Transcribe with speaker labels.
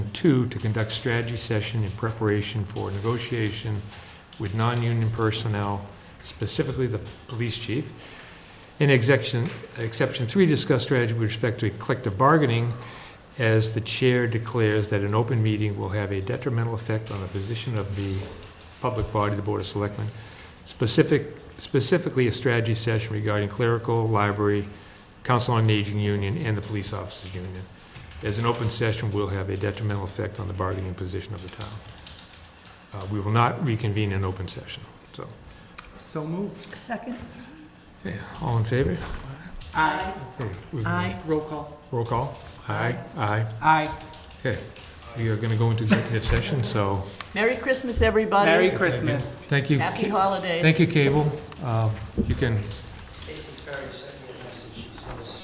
Speaker 1: two, to conduct strategy session in preparation for negotiation with non-union personnel, specifically the police chief. In exception, exception three, discuss strategy with respect to collective bargaining as the chair declares that an open meeting will have a detrimental effect on the position of the public body, the Board of Selectmen, specific, specifically a strategy session regarding clerical, library, council on aging union, and the police officers union. As an open session will have a detrimental effect on the bargaining position of the town. Uh, We will not reconvene in open session, so.
Speaker 2: So moved.
Speaker 3: Second?
Speaker 1: Okay, all in favor?
Speaker 2: Aye.
Speaker 1: We've-
Speaker 3: Aye.
Speaker 2: Roll call.
Speaker 1: Roll call? Aye, aye.
Speaker 2: Aye.
Speaker 1: Okay, we are gonna go into executive session, so
Speaker 3: Merry Christmas, everybody.
Speaker 2: Merry Christmas.
Speaker 1: thank you.
Speaker 3: Happy holidays.
Speaker 1: Thank you, Cable. Uh, You can